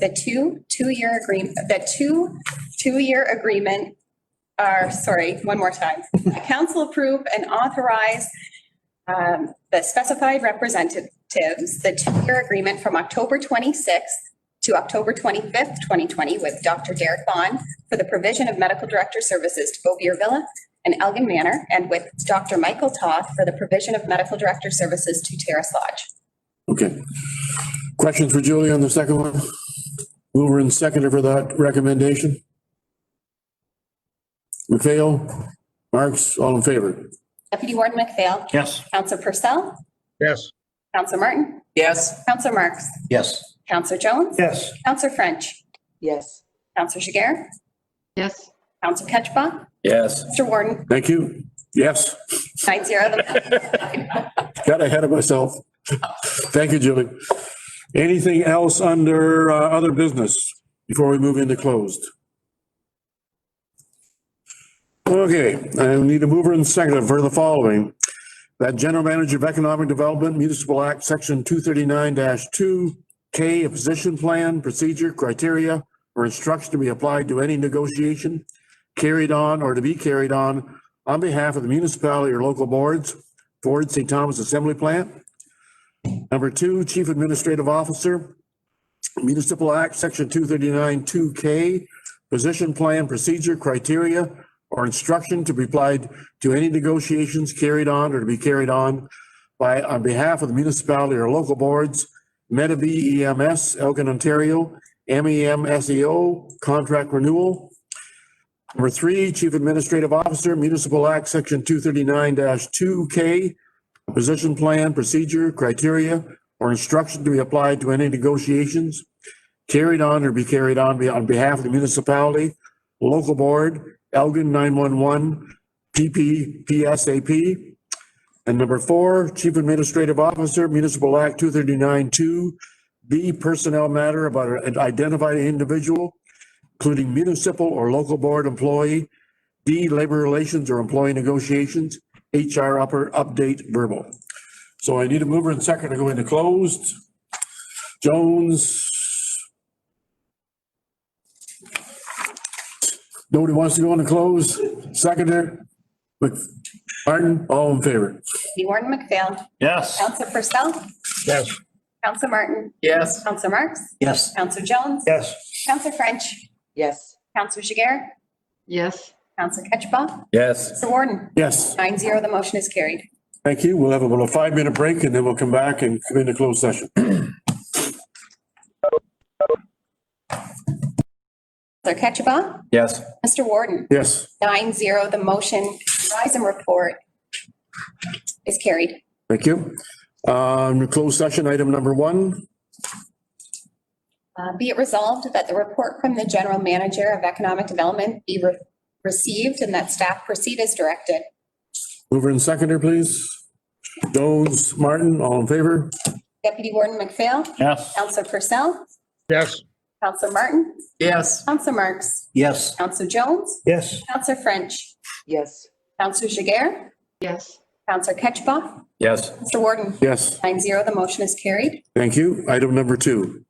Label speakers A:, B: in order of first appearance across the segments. A: The two, two-year agreement, the two, two-year agreement are, sorry, one more time. Council approve and authorize um, the specified representatives, the two-year agreement from October 26th to October 25th, 2020 with Dr. Derek Bond for the provision of medical director services to Bovier Villa and Elgin Manor and with Dr. Michael Toth for the provision of medical director services to Terrace Lodge.
B: Okay. Questions for Julie on the second one? Mover and seconder for that recommendation? McPhail, Marks, all in favor?
A: Deputy Warden McPhail.
C: Yes.
A: Counselor Purcell.
C: Yes.
A: Counselor Martin.
D: Yes.
A: Counselor Marks.
C: Yes.
A: Counselor Jones.
C: Yes.
A: Counselor French.
D: Yes.
A: Counselor Jiguer.
E: yes,
A: Counselor Ketchba.
C: Yes.
A: Mr. Warden,
B: Thank you. Yes,
A: nine zero. The
B: got ahead of myself. Thank you, Julie. Anything else under uh, other business before we move into closed? Okay, I need a mover and seconder for the following. That General Manager of Economic Development Municipal Act, Section two thirty-nine two, K, a position plan, procedure, criteria, or instruction to be applied to any negotiation carried on or to be carried on on behalf of the municipality or local boards, Ford St. Thomas Assembly Plant. Number two, Chief Administrative Officer, Municipal Act, Section two thirty-nine two K, position plan, procedure, criteria, or instruction to be applied to any negotiations carried on or to be carried on by, on behalf of the municipality or local boards, Meta B EMS, Elgin, Ontario, E MEM SEO, contract renewal. Number three, Chief Administrative Officer, Municipal Act, Section two thirty-nine two K, position plan, procedure, criteria, or instruction to be applied to any negotiations carried on or be carried on be- on behalf of the municipality, local board, Elgin nine-one-one, PPPSAP. And number four, Chief Administrative Officer, Municipal Act two thirty-nine two, B personnel matter about an identified individual, including municipal or local board employee, D labor relations or employee negotiations, HR upper update verbal. So I need a mover and second to go into closed. Jones. Nobody wants to go into closed. Seconder. Mc- Martin, all in favor?
A: Warden McPhail.
C: Yes.
A: Counselor Purcell.
C: Yes.
A: Counselor Martin.
D: Yes.
A: Counselor Marks.
C: Yes.
A: Counselor Jones.
C: Yes.
A: Counselor French.
D: Yes.
A: Counselor Jiguer.
E: yes,
A: Counselor Ketchba.
C: Yes.
A: Mr. Warden,
B: Yes,
A: nine zero, the motion is carried.
B: thank you. We'll have about a five-minute break and then we'll come back and come into closed session.
A: Counselor Ketchba.
C: Yes.
A: Mr. Warden,
B: Yes.
A: nine zero, the motion, rise and report is carried.
B: Thank you. Um, closed session, item number one.
A: Uh, Be it resolved that the report from the General Manager of Economic Development be re- received and that staff proceed as directed.
B: Mover and seconder, please. Jones, Martin, all in favor?
A: Deputy Warden McPhail,
C: Yes.
A: Counselor Purcell,
C: Yes.
A: Counselor Martin,
D: Yes.
A: Counselor Marks,
C: Yes.
A: Counselor Jones,
C: Yes.
A: Counselor French,
D: Yes.
A: Counselor Jiguer,
E: yes,
A: Counselor Ketchba,
C: Yes.
A: Mr. Warden,
B: Yes,
A: nine zero, the motion is carried.
B: thank you. Item number two.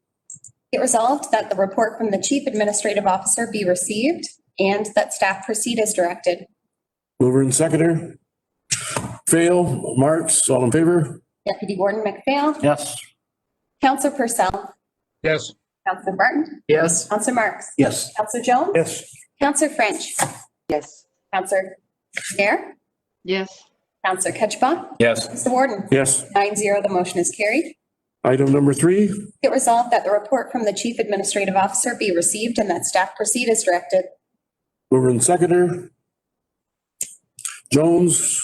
A: It resolved that the report from the chief administrative officer be received and that staff proceed as directed.
B: Mover and seconder. Fail, Marks, all in favor?
A: Deputy Warden McPhail,
C: Yes.
A: Counselor Purcell,
C: Yes.
A: Counselor Martin,
D: Yes.
A: Counselor Marks,
C: Yes.
A: Counselor Jones,
C: Yes.
A: Counselor French,
D: Yes.
A: Counselor Fair,
E: yes.
A: Counselor Ketchba,
C: Yes.
A: Mr. Warden,
B: Yes.
A: nine zero, the motion is carried.
B: Item number three.
A: It resolved that the report from the chief administrative officer be received and that staff proceed as directed.
B: Mover and seconder. Jones.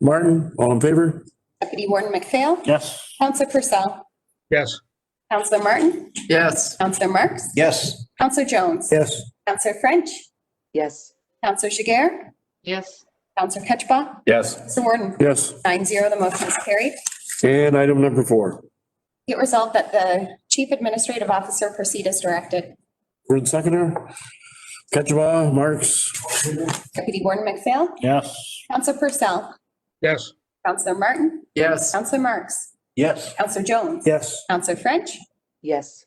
B: Martin, all in favor?
A: Deputy Warden McPhail,
C: Yes.
A: Counselor Purcell,
C: Yes.
A: Counselor Martin,
D: Yes.
A: Counselor Marks,
C: Yes.
A: Counselor Jones,
C: Yes.
A: Counselor French,
D: Yes.
A: Counselor Jiguer,
E: Yes,
A: Counselor Ketchba.
C: Yes.
A: Mr. Warden,
B: Yes.
A: nine zero, the motion is carried.
B: And item number four.
A: Be it resolved that the chief administrative officer proceed as directed.
B: Mover and seconder. Ketchba, Marks.
A: Deputy Warden McPhail,
C: Yes.
A: Counselor Purcell,
C: Yes.
A: Counselor Martin,
D: Yes.
A: Counselor Marks,
C: Yes.
A: Counselor Jones,
C: Yes.
A: Counselor French,
D: Yes.